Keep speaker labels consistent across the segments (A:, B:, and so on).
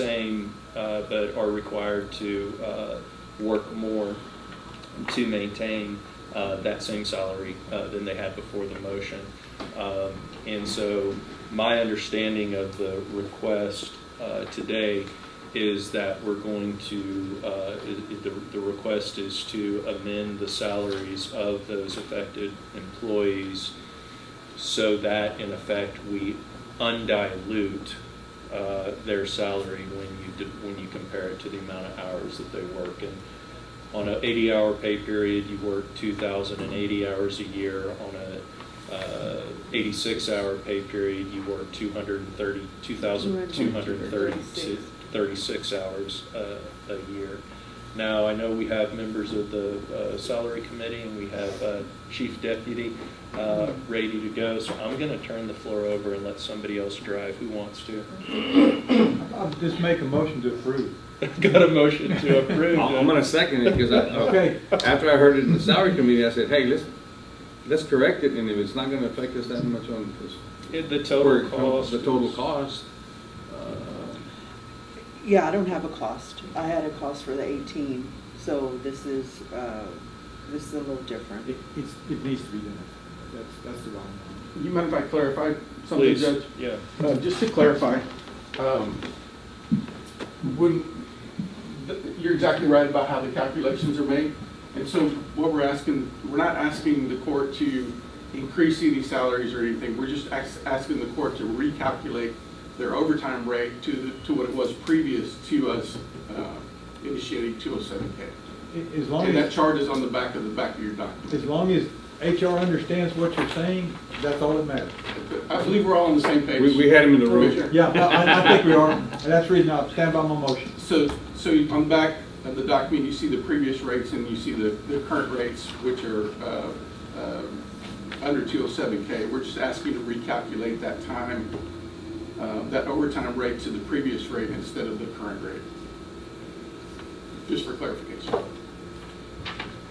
A: same, uh, but are required to uh, work more to maintain uh, that same salary uh, than they had before the motion. Um, And so my understanding of the request uh, today is that we're going to, uh, i- i- the the request is to amend the salaries of those affected employees so that in effect we undilute uh, their salary when you, do- when you compare it to the amount of hours that they work. And on an 80-hour pay period, you work 2,080 hours a year. On a uh, 86-hour pay period, you work 230, 2,236 36 hours uh, a year. Now, I know we have members of the uh, salary committee and we have uh, chief deputy uh, ready to go, so I'm going to turn the floor over and let somebody else drive who wants to.
B: I'll just make a motion to approve.
A: Got a motion to approve.
C: I'm I'm gonna second it, because I, uh,
B: Okay.
C: after I heard it in the salary committee, I said, hey, let's, let's correct it, and if it's not gonna affect us that much on, this-
A: It- The
C: where
A: total
C: it comes-
A: cost.
C: the total cost. uh,
D: Yeah, I don't have a cost. I had a cost for the 18, so this is, uh, this is a little different.
B: It, it's, it needs to be done. That's, that's the wrong one.
E: You mind if I clarify something,
A: Please,
E: Judge?
A: yeah.
E: Uh, Just to clarify, um, when, th- you're exactly right about how the calculations are made. And so what we're asking, we're not asking the court to increase any salaries or anything. We're just ax- asking the court to recalculate their overtime rate to, the- to what it was previous to us uh, initiating 207K.
B: A- As long
E: And that
B: as,
E: chart is on the back of the back of your
B: as
E: document.
B: long as HR understands what you're saying, that's all that matters.
E: I believe we're all on the same page.
C: We, we had him in the room.
E: Commissioner.
B: Yeah, I, I think we are, and that's the reason I stand by my motion.
E: So, so on the back of the document, you see the previous rates and you see the, the current rates, which are, uh, um, under two oh seven K. We're just asking you to recalculate that time, uh, that overtime rate to the previous rate instead of the current rate. Just for clarification.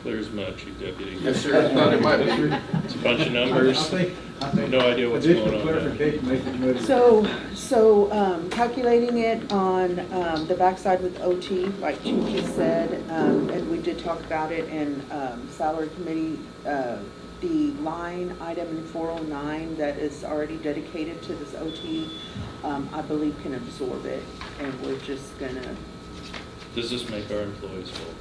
A: Clear as mud, chief deputy.
E: Yes, sir. I thought it might be.
A: It's a bunch of
B: I- I
A: numbers.
B: think, I think.
A: No idea what's
B: additional
A: going on there.
B: clarification makes it muddy.
D: So, so um, calculating it on um, the backside with OT, like you just said, um, and we did talk about it in um, salary committee, uh, the line item in 409 that is already dedicated to this OT, um, I believe can absorb it, and we're just gonna,
A: Does this make our employees whole?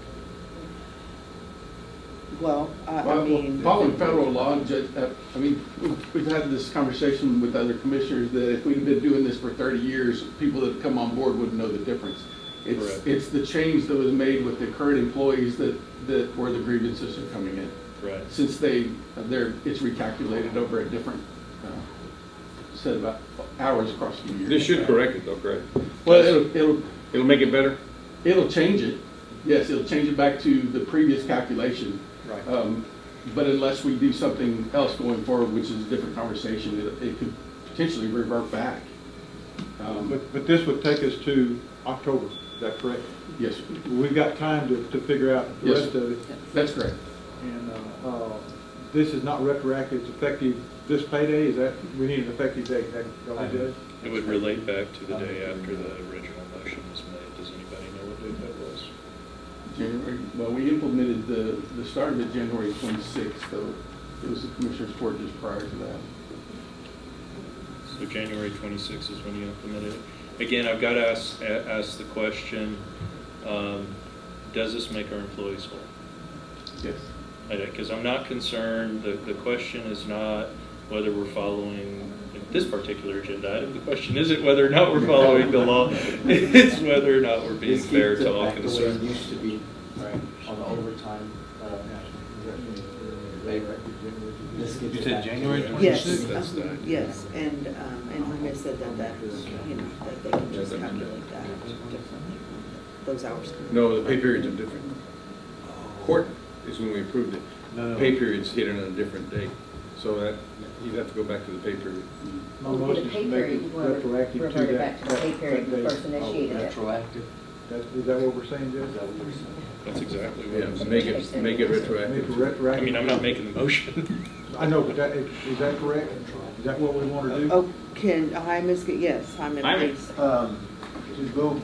D: well, I I
E: Well,
D: mean.
E: Following federal law, and Judge, uh, I mean, we've- we've had this conversation with other commissioners that if we'd been doing this for 30 years, people that have come on board wouldn't know the difference. It's,
A: Correct.
E: it's the change that was made with the current employees that, that where the grievances are coming in.
A: Right.
E: Since they, they're, it's recalculated over a different uh, set of hours across the year.
C: This should correct it though, correct?
E: Well, it'll, it'll,
C: It'll make it better?
E: it'll change it. Yes, it'll change it back to the previous calculation.
B: Right.
E: Um, But unless we do something else going forward, which is a different conversation, it- it could potentially revert back. Um,
B: But, but this would take us to October, is that correct?
E: Yes, sir.
B: We've got time to, to figure out the
E: Yes.
B: rest of it.
E: that's correct.
B: And, uh, uh, this is not retroactive, it's effective this payday, is that, we need an effective date, is that what we did?
A: It would relate back to the day after the original motion was made. Does anybody know what date that was?
E: January, well, we implemented the, the start of it January 26th, so it was the commissioner's court just prior to that.
A: So January 26th is when you implemented it. Again, I've got to ask, a- ask the question, um, does this make our employees whole?
E: Yes.
A: Because I'm not concerned, the, the question is not whether we're following this particular agenda item. The question isn't whether or not we're following the law. It's whether or not we're being
F: This
A: fair
F: keeps
A: to
F: it
A: all
F: back the way it
A: concerned.
F: used to be on the overtime. uh, labor. This gets
G: You
F: it
G: said
F: back to-
G: January
D: Yes,
G: 26th?
A: That's the
D: um,
A: idea.
D: yes, and, um, and Jaime said that, that, you know, that they can just calculate that differently, those hours.
C: No, the pay periods are different. Court is when we approved it.
G: No, no.
C: Pay periods hit on a different date, so that, you'd have to go back to the pay period.
B: My
H: Well,
B: motion is to
H: pay
B: make it
H: period, you wanna
B: retroactive to
H: revert it
B: that.
H: back to the pay
B: that-
H: period
B: that
H: you
B: date.
H: first initiated it.
F: Retroactive.
B: That- Is that what we're saying,
F: Is that
B: Judge?
F: what you're saying?
A: That's exactly what
C: Yeah,
A: I'm
C: make
A: saying.
C: it, make it
B: Make it
C: retroactive.
A: I
B: retroactive.
A: mean, I'm not making the motion.
B: I know, but that, is is that correct? Is that what we want to do?
D: Oh, can, Jaime's, get- yes, Jaime,
E: uh,
C: Jaime.
D: please.
F: Um,
E: Just boom.